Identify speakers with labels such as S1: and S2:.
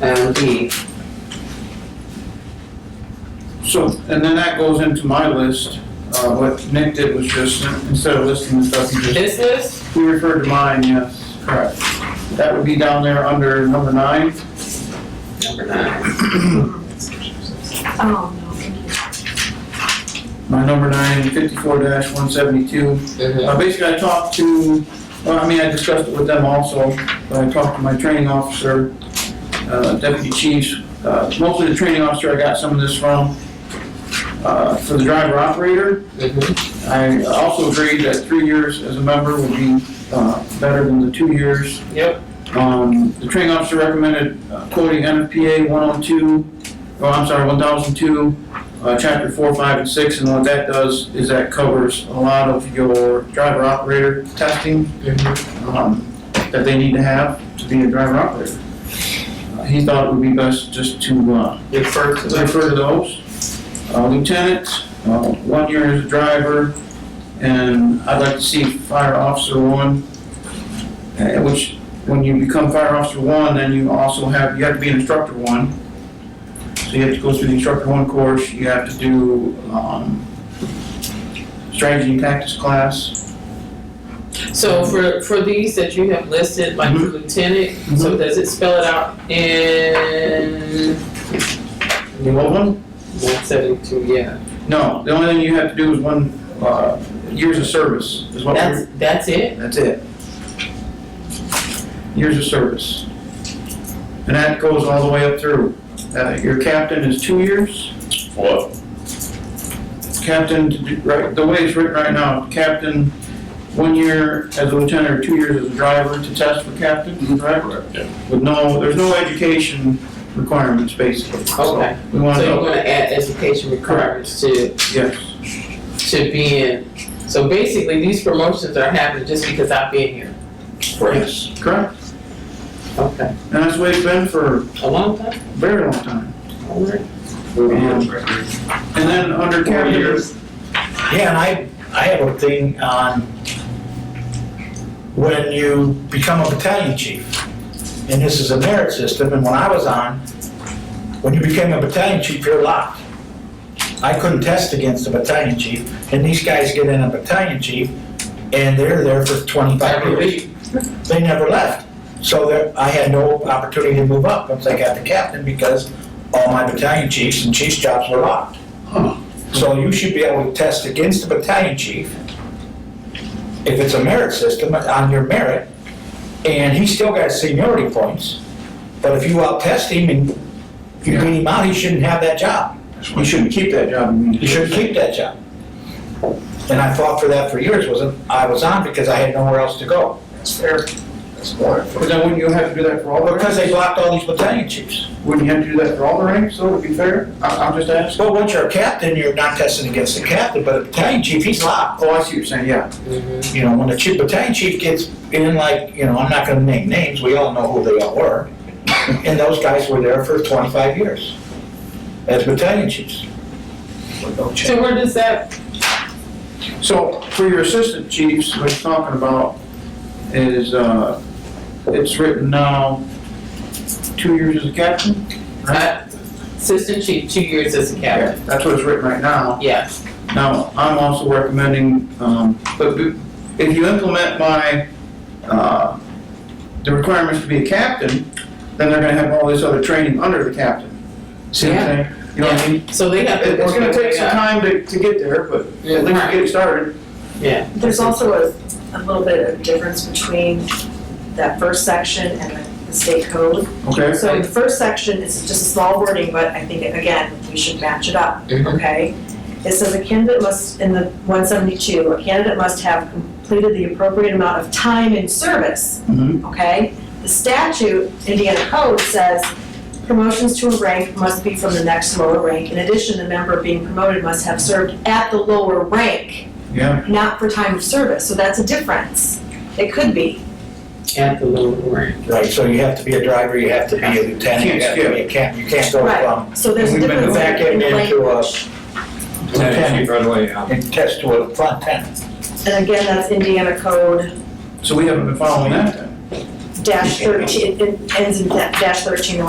S1: and E.
S2: So, and then that goes into my list. Uh, what Nick did was just, instead of listing the stuff, he just,
S1: This list,
S2: he referred to mine, yes, correct. That would be down there under number nine.
S1: number nine.
S3: Oh, no.
S2: My number nine, fifty-four dash one seventy-two.
S1: Mhm.
S2: Uh, basically, I talked to, well, I mean, I discussed it with them also, but I talked to my training officer, uh, deputy chiefs, uh, mostly the training officer I got some of this from. Uh, for the driver operator,
S4: Mm-hmm.
S1: Mhm.
S2: I also agreed that three years as a member would be, uh, better than the two years.
S1: Yep.
S2: Um, the training officer recommended uh, quoting NFPA 102, oh, I'm sorry, 1002, uh, chapter 4, 5, and 6, and what that does is that covers a lot of your driver operator testing,
S1: Mhm.
S2: um, that they need to have to be a driver operator. Uh, He thought it would be best just to, uh,
S1: Refer to
S2: I
S1: the
S2: refer to those. Uh, Lieutenant, uh, one year as a driver, and I'd like to see fire officer one, uh, which, when you become fire officer one, then you also have, you have to be an instructor one. So you have to go through the instructor one course, you have to do um, strategy and tactics class.
S4: So for, for these that you have listed, like
S2: Mhm.
S4: lieutenant, so does it spell it out in
S2: You want one?
S4: one seventy-two, yeah?
S2: No, the only thing you have to do is one, uh, years of service is what we're.
S4: That's, that's it?
S2: That's it. Years of service. And that goes all the way up through. Uh, Your captain is two years.
S5: What?
S2: Captain, to do- right, the way it's written right now, captain, one year as a lieutenant or two years as a driver to test for
S4: Mm-hmm.
S2: captain, correct?
S5: Yeah.
S2: With no, there's no education requirements, basically. So
S4: Okay,
S2: We
S4: so
S2: want
S4: you're
S2: to,
S4: gonna add education requirements to,
S2: yes,
S4: to being, so basically, these promotions are happening just because I've been here.
S2: yes, correct.
S4: Okay.
S2: And that's the way it's been for a
S4: A long time?
S2: very long time.
S4: All right.
S2: Um, And then under captain,
S6: Yeah, and I, I have a thing on when you become a battalion chief. And this is a merit system, and when I was on, when you became a battalion chief, you're locked. I couldn't test against a battalion chief, and these guys get in a battalion chief, and they're there for twenty-five
S4: Every
S6: years.
S4: week.
S6: They never left. So there, I had no opportunity to move up once I got to captain because all my battalion chiefs and chief's jobs were locked. So you should be able to test against the battalion chief if it's a merit system, on your merit, and he still got seniority points. But if you out-test him and you beat him out, he shouldn't have that job.
S2: you shouldn't keep that job.
S6: He shouldn't keep that job. And I fought for that for years, wasn't, I was on because I had nowhere else to go.
S2: That's fair.
S6: That's more.
S2: But then wouldn't you have to do that for all the
S6: Because
S2: ranks?
S6: they blocked all these battalion chiefs.
S2: Wouldn't you have to do that for all the ranks, though, to be fair? I, I'm just asking.
S6: Well, once you're a captain, you're not testing against the captain, but a battalion chief, he's locked.
S2: Oh, I see what you're saying, yeah.
S4: Mhm.
S6: You know, when the chief, battalion chief gets in like, you know, I'm not gonna name names, we all know who they all were. And those guys were there for twenty-five years as battalion chiefs.
S4: So where does that,
S2: So for your assistant chiefs, what you're talking about is, uh, it's written now, two years as a captain?
S4: uh, assistant chief, two years as a
S2: Yeah,
S4: captain?
S2: That's what it's written right now.
S4: Yeah.
S2: Now, I'm also recommending, um, but b- if you implement my, uh, the requirements to be a captain, then they're gonna have all this other training under the captain. See what I'm saying? You know what I mean?
S4: So they have to
S2: It-
S4: work.
S2: It's gonna
S4: their way
S2: take some
S4: up.
S2: time to, to get there, but at least get it started.
S3: There's also a, a little bit of difference between that first section and the state code.
S2: Okay.
S3: So the first section is just a small wording, but I think, again, we should match it up,
S4: Mhm.
S3: okay? It says a candidate must, in the one seventy-two, a candidate must have completed the appropriate amount of time in service,
S2: Mhm.
S3: okay? The statute, Indiana code says promotions to a rank must be from the next lower rank. In addition, the member being promoted must have served at the lower rank
S2: Yeah.
S3: not for time of service, so that's a difference. It could be.
S4: At the little ranch.
S6: Right, so you have to be a driver, you have to be a lieutenant, you have to be a captain, you can't go from
S3: So there's a
S2: We've been
S3: difference
S6: back
S3: in
S6: in
S3: the
S6: into a
S3: language.
S6: lieutenant and test to a lieutenant.
S3: And again, that's Indiana Code
S2: So we haven't been following that then?
S3: dash thirteen, it it ends in da- dash thirteen